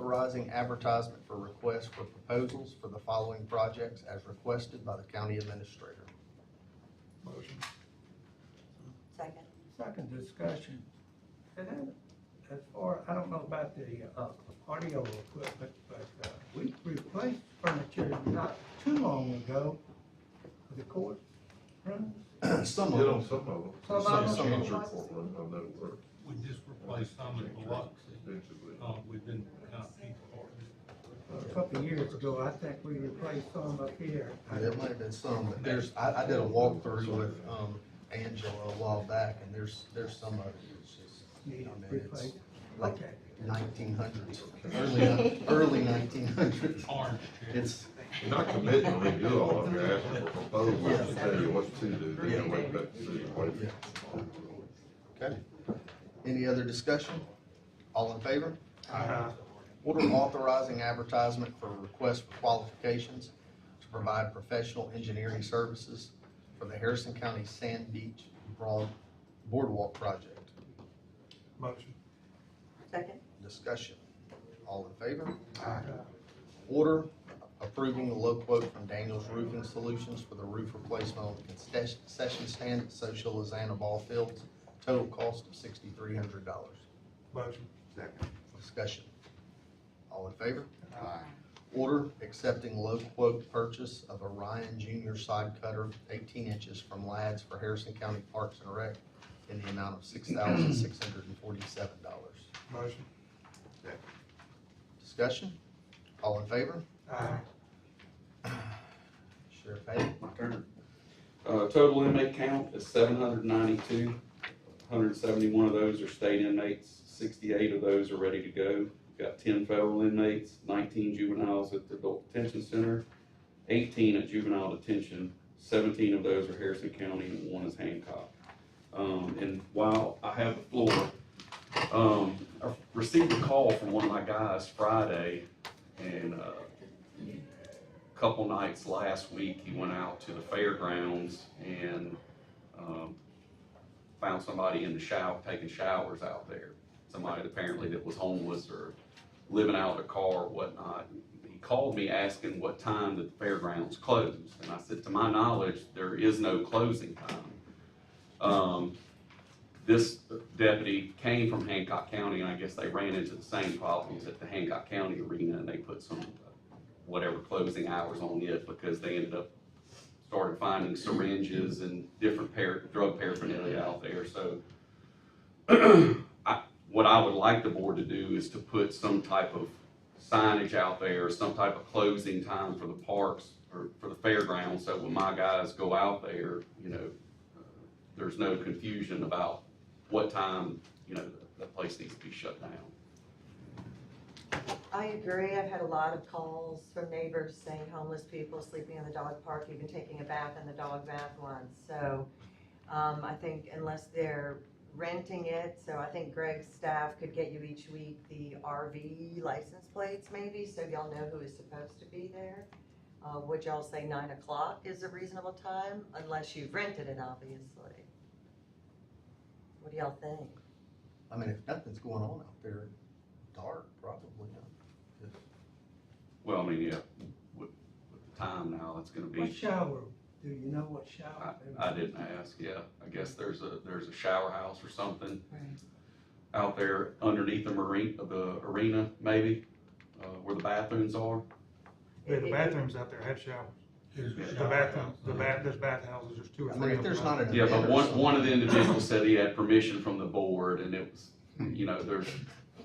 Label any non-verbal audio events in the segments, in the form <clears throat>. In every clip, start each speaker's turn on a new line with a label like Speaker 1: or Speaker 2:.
Speaker 1: authorizing advertisement for requests for proposals for the following projects as requested by the county administrator.
Speaker 2: Motion.
Speaker 3: Second.
Speaker 2: Second discussion. And then, as far, I don't know about the, uh, audio equipment, but, uh, we replaced furniture not too long ago for the court rooms.
Speaker 1: <clears throat> Some
Speaker 4: Hit on
Speaker 1: of them,
Speaker 4: some of them.
Speaker 2: Some of them.
Speaker 4: Change your courtroom, how that work.
Speaker 5: We just replaced some in Biloxi,
Speaker 4: Eventually.
Speaker 5: uh, we've been kind of people for
Speaker 2: A couple of years ago, I think we replaced some up here.
Speaker 1: there might have been some, but there's, I, I did a walkthrough with, um, Angela a while back, and there's, there's some of it, it's just, I
Speaker 2: Need
Speaker 1: mean, it's
Speaker 2: replaced.
Speaker 1: like
Speaker 2: Okay.
Speaker 1: nineteen hundreds, early, early nineteen hundreds.
Speaker 5: orange chairs.
Speaker 1: It's,
Speaker 4: You're not committing to redo all of it, you're asking for proposals to tell you what to do, then you wait back to see what.
Speaker 1: yeah. Okay. Any other discussion? All in favor?
Speaker 2: Uh,
Speaker 1: Order authorizing advertisement for request for qualifications to provide professional engineering services for the Harrison County Sand Beach Broad Boardwalk Project.
Speaker 2: Motion.
Speaker 3: Second.
Speaker 1: Discussion. All in favor?
Speaker 2: Uh,
Speaker 1: Order approving the low quote from Daniels Roofing Solutions for the roof replacement on the concession stand at Social Lizana Ball Fields. Total cost of sixty-three hundred dollars.
Speaker 2: Motion.
Speaker 1: Discussion. All in favor? Order accepting low quote purchase of a Ryan Junior side cutter, eighteen inches from Lads for Harrison County Parks and Rec in the amount of six thousand six hundred and forty-seven dollars.
Speaker 2: Motion.
Speaker 1: Discussion? All in favor?
Speaker 2: Aye.
Speaker 1: Sheriff Hay?
Speaker 6: My turn. Uh, total inmate count is seven hundred ninety-two. Hundred and seventy-one of those are state inmates, sixty-eight of those are ready to go. We've Got ten federal inmates, nineteen juveniles at the adult detention center, eighteen at juvenile detention, seventeen of those are Harrison County, and one is Hancock. Um, and while I have the floor, um, I received a call from one of my guys Friday, and, uh, couple nights last week, he went out to the fairgrounds and, um, found somebody in the shower, taking showers out there. Somebody apparently that was homeless or living out of the car or whatnot. He called me asking what time that the fairgrounds closed, and I said, to my knowledge, there is no closing time. Um, this deputy came from Hancock County, and I guess they ran into the same problems at the Hancock County arena, and they put some, uh, whatever closing hours on it because they ended up started finding syringes and different par, drug paraphernalia out there, so. <clears throat> I, what I would like the board to do is to put some type of signage out there, some type of closing time for the parks or for the fairgrounds, so when my guys go out there, you know, there's no confusion about what time, you know, the, the place needs to be shut down.
Speaker 3: I agree. I've had a lot of calls from neighbors saying homeless people sleeping in the dog park, even taking a bath in the dog bath once. So, um, I think unless they're renting it, so I think Greg's staff could get you each week the RV license plates maybe, so y'all know who is supposed to be there. Uh, would y'all say nine o'clock is a reasonable time, unless you've rented it, obviously? What do y'all think?
Speaker 1: I mean, if nothing's going on out there, dark, probably not.
Speaker 6: Well, I mean, yeah, with, with the time now, it's gonna be.
Speaker 2: What shower? Do you know what shower?
Speaker 6: I, I didn't ask, yeah, I guess there's a, there's a shower house or something
Speaker 3: Right.
Speaker 6: out there underneath the marine, the arena maybe, uh, where the bathrooms are.
Speaker 7: Yeah,
Speaker 3: <laughs>
Speaker 7: the bathrooms out there have showers.
Speaker 5: Here's
Speaker 6: Yeah,
Speaker 5: a
Speaker 6: the
Speaker 7: The
Speaker 5: shower
Speaker 7: bathroom,
Speaker 5: house.
Speaker 7: the bath, there's bathhouses, there's two or
Speaker 1: I
Speaker 7: three.
Speaker 1: mean, if
Speaker 7: of
Speaker 1: there's
Speaker 7: them.
Speaker 1: not an
Speaker 6: Yeah,
Speaker 1: event
Speaker 6: but
Speaker 1: or
Speaker 6: one,
Speaker 1: something-
Speaker 6: one of the individuals said he had permission from the board and it was, you know, there's,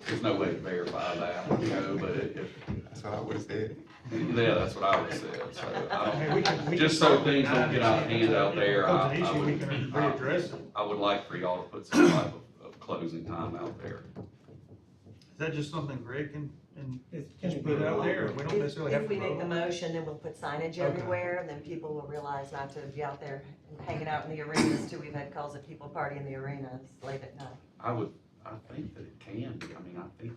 Speaker 6: there's no way to verify that, you know, but it, it,
Speaker 8: That's what I would have said.
Speaker 6: yeah, that's what I would say, so I
Speaker 7: Hey, we can- we
Speaker 6: don't, just
Speaker 7: can-
Speaker 6: so things don't get out of hand out there,
Speaker 7: If
Speaker 6: I,
Speaker 7: it's an
Speaker 6: I
Speaker 7: issue, we
Speaker 6: would,
Speaker 7: can readdress it.
Speaker 6: I would like for y'all to put some type of, of closing time out there.
Speaker 7: Is that just something Greg can, and
Speaker 2: It's- can
Speaker 7: just
Speaker 2: it
Speaker 7: put it
Speaker 2: be
Speaker 7: out
Speaker 2: longer?
Speaker 7: there? We don't
Speaker 3: If,
Speaker 7: necessarily have
Speaker 3: if
Speaker 7: to.
Speaker 3: we make the
Speaker 7: vote.
Speaker 3: motion, then we'll put signage
Speaker 7: Okay.
Speaker 3: everywhere, and then people will realize not to be out there hanging out in the arenas too. We've had calls of people partying in the arenas late at night.
Speaker 6: I would, I think that it can be, I mean, I think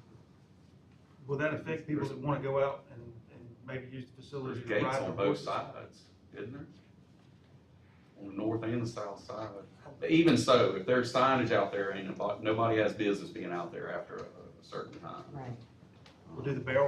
Speaker 7: Will that affect people that wanna go out and, and maybe use the
Speaker 6: there's
Speaker 7: facility to
Speaker 6: gates
Speaker 7: ride their
Speaker 6: on both
Speaker 7: horses?
Speaker 6: sides, isn't there? On the north and the south side. Even so, if there's signage out there, ain't nobody, nobody has business being out there after a a certain time.
Speaker 3: Right.
Speaker 7: We'll do the barrel